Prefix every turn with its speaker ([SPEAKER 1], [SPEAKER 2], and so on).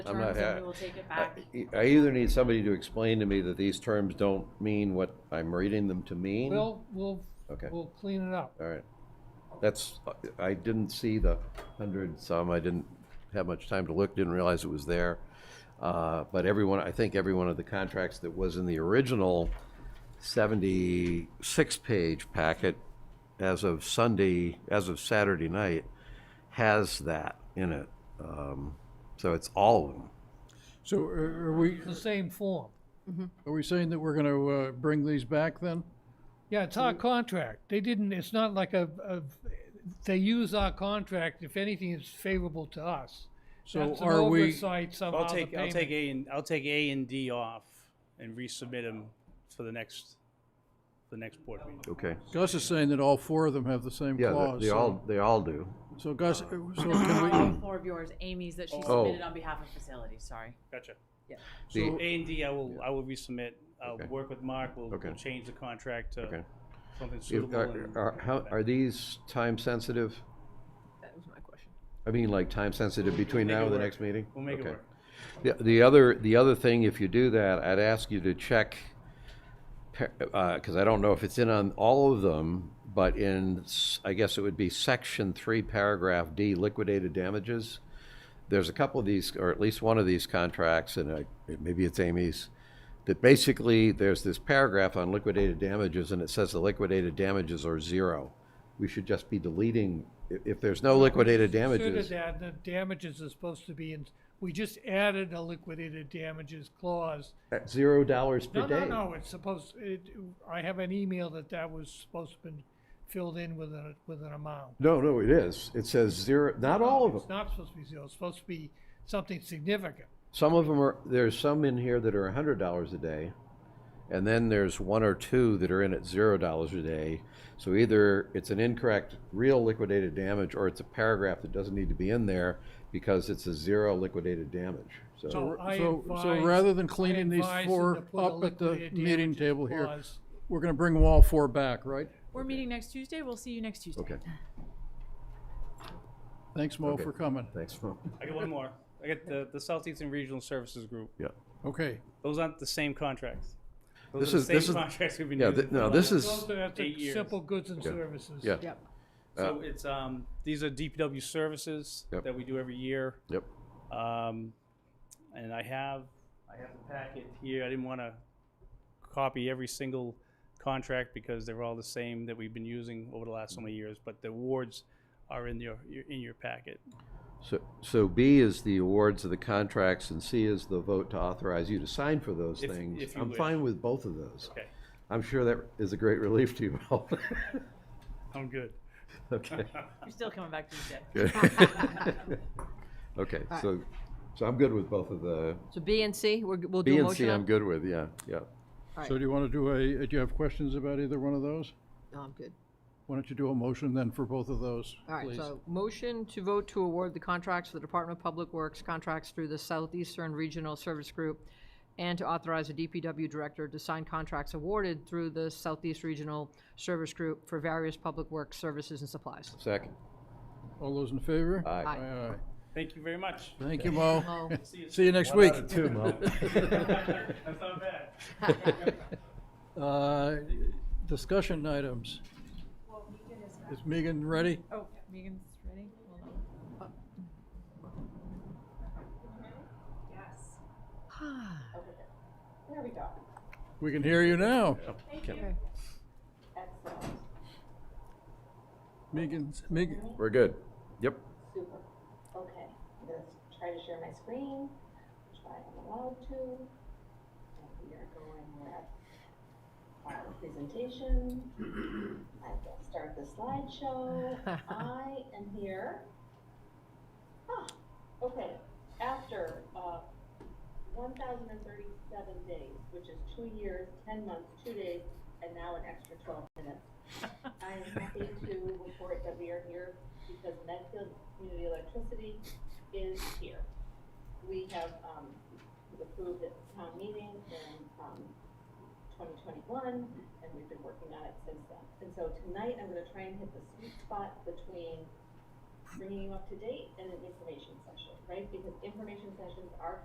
[SPEAKER 1] the
[SPEAKER 2] I'm not
[SPEAKER 1] terms and
[SPEAKER 2] ha-
[SPEAKER 1] we will take it
[SPEAKER 2] I
[SPEAKER 1] back.
[SPEAKER 2] I either need somebody to explain to me that these terms don't mean what I'm reading them to mean. All
[SPEAKER 3] We'll, we'll,
[SPEAKER 2] Okay.
[SPEAKER 3] we'll clean it up.
[SPEAKER 2] right. That's, I didn't see the hundred some, I didn't have much time to look, didn't realize it was there. Uh, But everyone, I think every one of the contracts that was in the original seventy-six page packet as of Sunday, as of Saturday night, has that in it. Um, So it's all of them.
[SPEAKER 4] So uh, are are we,
[SPEAKER 3] The same form.
[SPEAKER 4] are we saying that we're going to bring these back then?
[SPEAKER 3] Yeah, it's our contract. They didn't, it's not like a, a, they use our contract if anything is favorable to us.
[SPEAKER 4] So
[SPEAKER 3] That's an
[SPEAKER 4] are we,
[SPEAKER 3] oversight somehow,
[SPEAKER 5] I'll
[SPEAKER 3] the
[SPEAKER 5] take, I'll
[SPEAKER 3] payment.
[SPEAKER 5] take A and, I'll take A and D off and resubmit them for the next, the next board meeting.
[SPEAKER 2] Okay.
[SPEAKER 4] Gus is saying that all four of them have the same
[SPEAKER 2] Yeah, they-
[SPEAKER 4] clause.
[SPEAKER 2] they
[SPEAKER 4] so-
[SPEAKER 2] all, they all do.
[SPEAKER 4] So Gus, uh, so
[SPEAKER 1] All
[SPEAKER 4] can
[SPEAKER 1] four of yours, Amy's that she
[SPEAKER 2] Oh.
[SPEAKER 1] submitted on behalf of facilities, sorry.
[SPEAKER 5] Gotcha.
[SPEAKER 2] The-
[SPEAKER 4] we, so
[SPEAKER 5] A and D, I will, I will resubmit. I'll
[SPEAKER 2] Okay.
[SPEAKER 5] work with Mark. We'll,
[SPEAKER 2] Okay.
[SPEAKER 5] we'll change the contract
[SPEAKER 2] Okay.
[SPEAKER 5] to something
[SPEAKER 2] If-
[SPEAKER 5] suitable.
[SPEAKER 2] Are,
[SPEAKER 5] and-
[SPEAKER 2] are, how, are these time sensitive?
[SPEAKER 1] That was my question.
[SPEAKER 2] I mean, like time sensitive between
[SPEAKER 5] Make it
[SPEAKER 2] now and the
[SPEAKER 5] work.
[SPEAKER 2] next meeting?
[SPEAKER 5] We'll make it
[SPEAKER 2] Okay.
[SPEAKER 5] work.
[SPEAKER 2] The, the other, the other thing, if you do that, I'd ask you to check, because I don't know if it's in on all of them, but in, s- I guess it would be section three, paragraph D, liquidated damages. There's a couple of these, or at least one of these contracts, and I- maybe it's Amy's, that basically, there's this paragraph on liquidated damages, and it says the liquidated damages are zero. We should just be deleting, if, if there's no liquidated
[SPEAKER 3] Consider
[SPEAKER 2] damages.
[SPEAKER 3] that, the damages are supposed to be in, we just added a liquidated damages clause.
[SPEAKER 2] at Zero dollars per
[SPEAKER 3] No, no,
[SPEAKER 2] day.
[SPEAKER 3] no, it's supposed, it, I have an email that that was supposed to been filled in with a, with an amount.
[SPEAKER 2] No, no, it is. It says zero, not all of them.
[SPEAKER 3] It's not supposed to be zero, it's supposed to be something significant.
[SPEAKER 2] Some of them are, there's some in here that are a hundred dollars a day. And then there's one or two that are in at zero dollars a day. So either it's an incorrect real liquidated damage or it's a paragraph that doesn't need to be in there because it's a zero liquidated damage. So,
[SPEAKER 3] So Oh, I
[SPEAKER 4] so- so
[SPEAKER 3] advise-
[SPEAKER 4] rather than
[SPEAKER 3] I
[SPEAKER 4] cleaning these
[SPEAKER 3] advise them
[SPEAKER 4] four
[SPEAKER 3] to put a
[SPEAKER 4] up at the
[SPEAKER 3] liquidated
[SPEAKER 4] meeting
[SPEAKER 3] damages
[SPEAKER 4] table here.
[SPEAKER 3] clause.
[SPEAKER 4] we're going to bring them all four back, right?
[SPEAKER 1] We're meeting next Tuesday, we'll see you next Tuesday.
[SPEAKER 2] okay,
[SPEAKER 4] Thanks, Mo,
[SPEAKER 2] Okay.
[SPEAKER 4] for coming.
[SPEAKER 2] thanks.
[SPEAKER 5] I got one more. I got the, the Southeastern Regional Services Group.
[SPEAKER 2] Yeah.
[SPEAKER 4] Okay,
[SPEAKER 5] Those aren't the same contracts.
[SPEAKER 2] This
[SPEAKER 5] Those are
[SPEAKER 2] is-
[SPEAKER 5] the
[SPEAKER 2] this
[SPEAKER 5] same
[SPEAKER 2] is-
[SPEAKER 5] contracts we've been
[SPEAKER 2] yeah,
[SPEAKER 5] using.
[SPEAKER 2] th- no,
[SPEAKER 5] for
[SPEAKER 2] this
[SPEAKER 5] the-
[SPEAKER 2] is-
[SPEAKER 3] Those are the
[SPEAKER 5] Eight years.
[SPEAKER 3] simple goods and services.
[SPEAKER 2] Yeah,
[SPEAKER 1] Yep.
[SPEAKER 5] So it's, um, these are DPW services
[SPEAKER 2] Uh, Yep.
[SPEAKER 5] that we do every year.
[SPEAKER 2] yep.
[SPEAKER 5] Um, and I have, I have the packet here. I didn't want to copy every single contract because they're all the same that we've been using over the last so many years, but the awards are in your, your- in your packet.
[SPEAKER 2] So, so B is the awards of the contracts and C is the vote to authorize you to sign for those
[SPEAKER 5] If-
[SPEAKER 2] things.
[SPEAKER 5] if you
[SPEAKER 2] I'm
[SPEAKER 5] wish.
[SPEAKER 2] fine with both of those.
[SPEAKER 5] Okay,
[SPEAKER 2] I'm sure that is a great relief to you all.
[SPEAKER 5] I'm good.
[SPEAKER 2] Okay.
[SPEAKER 1] You're still coming back Tuesday.
[SPEAKER 2] Okay, so, so I'm good with both of the,
[SPEAKER 6] So B and C, we're, we'll do
[SPEAKER 2] B
[SPEAKER 6] a
[SPEAKER 2] and C
[SPEAKER 6] motion
[SPEAKER 2] I'm
[SPEAKER 6] on?
[SPEAKER 2] good with, yeah, yeah.
[SPEAKER 4] so do you want to do a, uh, do you have questions about either one of those?
[SPEAKER 6] No, I'm good.
[SPEAKER 4] Why don't you do a motion then for both of those,
[SPEAKER 6] All right,
[SPEAKER 4] please?
[SPEAKER 6] so motion to vote to award the contracts for the Department of Public Works contracts through the Southeastern Regional Service Group and to authorize the DPW director to sign contracts awarded through the Southeast Regional Service Group for various public works services and supplies.
[SPEAKER 2] Second,
[SPEAKER 4] All those in favor?
[SPEAKER 2] aye.
[SPEAKER 6] Aye.
[SPEAKER 4] Aye, aye.
[SPEAKER 5] Thank you very much.
[SPEAKER 4] Thank you, Mo.
[SPEAKER 6] Mo.
[SPEAKER 4] See you next week.
[SPEAKER 5] That's not bad.
[SPEAKER 4] Uh, Discussion items. Is Megan ready?
[SPEAKER 1] Oh, Megan's ready? Hold on.
[SPEAKER 4] We can hear you now. Megan's, Megan,
[SPEAKER 2] We're good. Yep.
[SPEAKER 7] Super. Okay, let's try to share my screen, which I am allowed to. And we are going with our presentation. I will start the slideshow. I am here. Ah, okay, after, uh, one thousand and thirty-seven days, which is two years, ten months, two days, and now an extra twelve minutes. I am happy to report that we are here because Medfield Community Electricity is here. We have, um, approved at town meeting in, um, twenty twenty-one, and we've been working on it since then. And so tonight, I'm gonna try and hit the sweet spot between bringing you up to date, and an information session, right? Because information sessions are